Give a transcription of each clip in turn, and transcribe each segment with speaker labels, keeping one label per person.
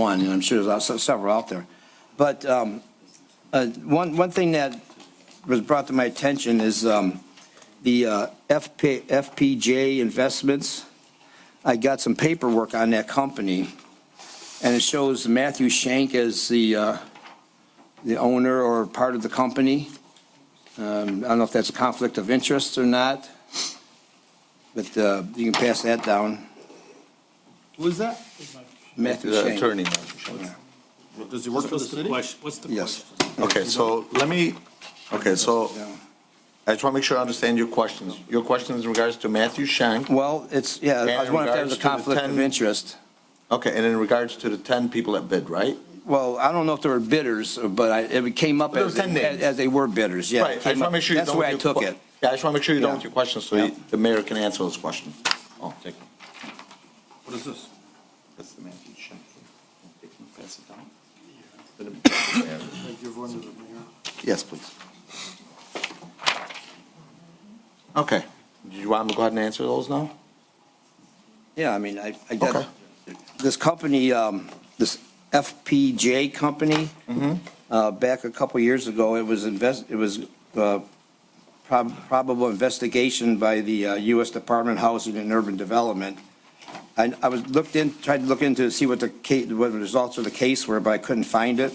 Speaker 1: one, and I'm sure there's also several out there. But um, uh, one, one thing that was brought to my attention is um, the uh, FP FPJ Investments. I got some paperwork on that company, and it shows Matthew Shank as the, uh, the owner or part of the company. Um, I don't know if that's a conflict of interest or not, but uh, you can pass that down.
Speaker 2: Who's that?
Speaker 1: Matthew
Speaker 3: The
Speaker 1: Shank.
Speaker 3: attorney.
Speaker 2: Does he work for the
Speaker 4: What's the
Speaker 2: city?
Speaker 4: question? What's the
Speaker 1: Yes.
Speaker 4: question?
Speaker 3: Okay, so let me, okay, so
Speaker 1: Yeah.
Speaker 3: I just want to make sure I understand your questions. Your question is in regards to Matthew Shank,
Speaker 1: Well, it's, yeah, I was
Speaker 3: And
Speaker 1: wondering if there was
Speaker 3: regards
Speaker 1: a
Speaker 3: to the
Speaker 1: conflict of
Speaker 3: 10
Speaker 1: interest.
Speaker 3: okay, and in regards to the 10 people that bid, right?
Speaker 1: Well, I don't know if there were bidders, but I, it came up
Speaker 3: There were
Speaker 1: as,
Speaker 3: 10 names.
Speaker 1: as they were bidders, yeah.
Speaker 3: Right, I
Speaker 1: it
Speaker 3: just
Speaker 1: came
Speaker 3: want to
Speaker 1: up-
Speaker 3: make sure you're
Speaker 1: That's
Speaker 3: done
Speaker 1: the way I
Speaker 3: with your
Speaker 1: took
Speaker 3: que-
Speaker 1: it.
Speaker 3: Yeah, I just want to make sure you're
Speaker 1: Yeah.
Speaker 3: done with your questions, so
Speaker 1: Yeah.
Speaker 3: you- the mayor can answer those questions. Oh, take it.
Speaker 2: What is this?
Speaker 3: That's the Matthew Shank. Pass it down.
Speaker 2: Give one to the mayor.
Speaker 3: Yes, please. Okay, do you want me to go ahead and answer those now?
Speaker 1: Yeah, I mean, I, I
Speaker 3: Okay.
Speaker 1: got, this company, um, this FPJ company,
Speaker 3: Mm-hmm.
Speaker 1: uh, back a couple years ago, it was invest, it was, uh, prob- probable investigation by the uh, U.S. Department of Housing and Urban Development. And I was looked in, tried to look into to see what the ca, what the results of the case were, but I couldn't find it.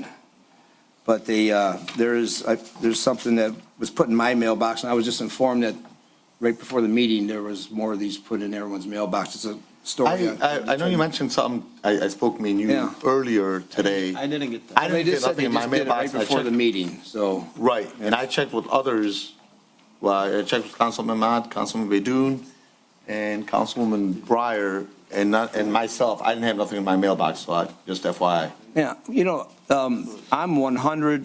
Speaker 1: But they, uh, there is, I, there's something that was put in my mailbox, and I was just informed that right before the meeting, there was more of these put in everyone's mailbox. It's a story.
Speaker 3: I, I, I know you mentioned something, I, I spoke me and
Speaker 1: Yeah.
Speaker 3: you earlier today.
Speaker 2: I didn't get that.
Speaker 3: I
Speaker 1: They
Speaker 3: didn't get
Speaker 1: just said
Speaker 3: nothing
Speaker 1: they
Speaker 3: in my
Speaker 1: just did it right
Speaker 3: mailbox. I
Speaker 1: before the
Speaker 3: checked-
Speaker 1: meeting, so.
Speaker 3: Right, and I checked with others, well, I checked with Councilman Ahmad, Councilman Baydun, and Councilwoman Breyer, and not, and myself, I didn't have nothing in my mailbox, so I, just FYI.
Speaker 1: Yeah, you know, um, I'm one hundred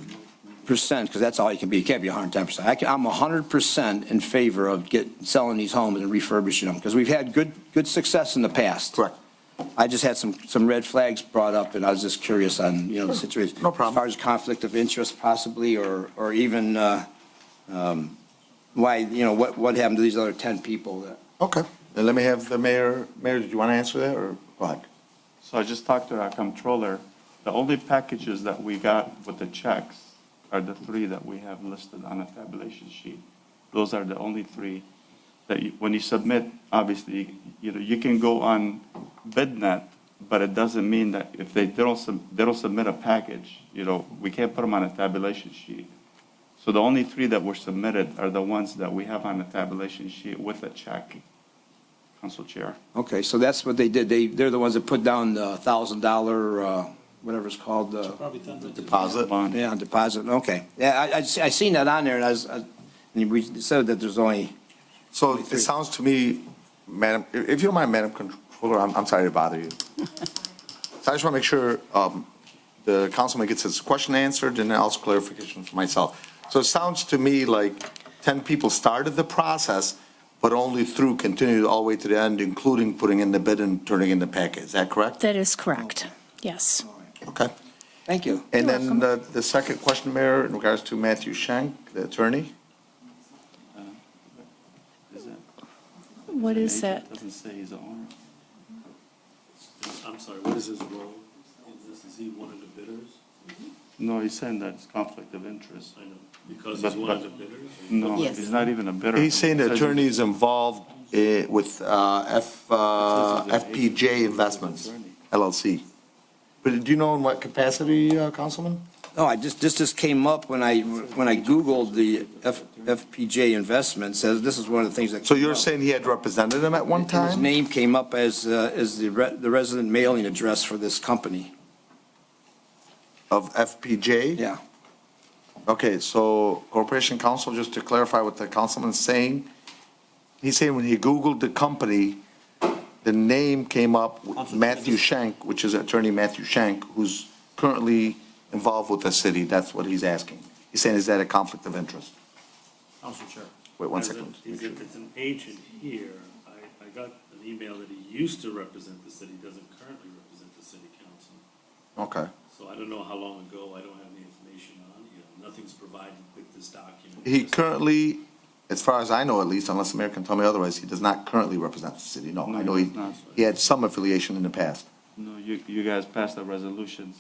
Speaker 1: percent, because that's all you can be, you can't be hundred and ten percent. I can, I'm hundred percent in favor of get, selling these homes and refurbishing them, because we've had good, good success in the past.
Speaker 3: Correct.
Speaker 1: I just had some, some red flags brought up, and I was just curious on, you know, the situation.
Speaker 3: No problem.
Speaker 1: As far as conflict of interest possibly, or, or even, uh, um, why, you know, what, what happened to these other ten people that
Speaker 3: Okay. And let me have the mayor, mayor, did you want to answer that, or go ahead?
Speaker 5: So I just talked to our comptroller. The only packages that we got with the checks are the three that we have listed on a tabulation sheet. Those are the only three that you, when you submit, obviously, you know, you can go on BidNet, but it doesn't mean that if they they don't, sub- they don't submit a package, you know, we can't put them on a tabulation sheet. So the only three that were submitted are the ones that we have on a tabulation sheet with a check. Council Chair.
Speaker 1: Okay, so that's what they did. They, they're the ones that put down the thousand dollar, uh, whatever it's called, uh,
Speaker 2: Probably done.
Speaker 3: Deposit?
Speaker 5: Bond.
Speaker 1: yeah, deposit, okay. Yeah, I, I, se- I seen that on there and I was, I- and we said that there's only,
Speaker 3: So it sounds to me, Madam, if if you don't mind, Madam Controller, I'm, I'm sorry to bother you. So I just want to make sure um, the councilman gets his question answered and also clarification for myself. So it sounds to me like 10 people started the process, but only through, continued all the way to the end, including putting in the bid and turning in the packet. Is that correct?
Speaker 6: That is correct, yes.
Speaker 3: Okay.
Speaker 1: thank you.
Speaker 3: And then the, the second question, Mayor, in regards to Matthew Shank, the attorney?
Speaker 5: Is that-
Speaker 6: What is that?
Speaker 5: Doesn't say he's the owner.
Speaker 4: I'm sorry, what is his role? Is he one of the bidders?
Speaker 5: No, he's saying that it's conflict of interest.
Speaker 4: I know, because he's one of the bidders?
Speaker 5: No, he's not even a bidder.
Speaker 3: He's saying
Speaker 5: It
Speaker 3: the
Speaker 5: says-
Speaker 3: attorney is involved eh, with uh, F, uh, FPJ Investments LLC. But do you know in what capacity, uh, Councilman?
Speaker 1: No, I just, this just came up when I, when I Googled the F, FPJ investment, says this is one of the things that.
Speaker 3: So
Speaker 1: came
Speaker 3: you're
Speaker 1: up.
Speaker 3: saying he had represented him at one
Speaker 1: And His
Speaker 3: time?
Speaker 1: name came up as, uh, as the re- the resident mailing address for this company.
Speaker 3: Of FPJ?
Speaker 1: Yeah.
Speaker 3: Okay, so Corporation Counsel, just to clarify what the councilman's saying, he's saying when he Googled the company, the name came up, with Matthew Shank, which is attorney Matthew Shank, who's currently involved with the city. That's what he's asking. He's saying, is that a conflict of interest?
Speaker 4: Council Chair.
Speaker 3: Wait one
Speaker 4: As a-
Speaker 3: second.
Speaker 4: He's, a- it's an agent here. I, I got an email that he used to represent the city, doesn't currently represent the city council.
Speaker 3: Okay.
Speaker 4: So I don't know how long ago, I don't have any information on him. Nothing's provided with this document.
Speaker 3: He currently, as far as I know at least, unless the mayor can tell me otherwise, he does not currently represent the city, no.
Speaker 5: No,
Speaker 3: I know
Speaker 5: he
Speaker 3: he,
Speaker 5: does not.
Speaker 3: he had some affiliation in the past.
Speaker 5: No, you, you guys passed the resolutions.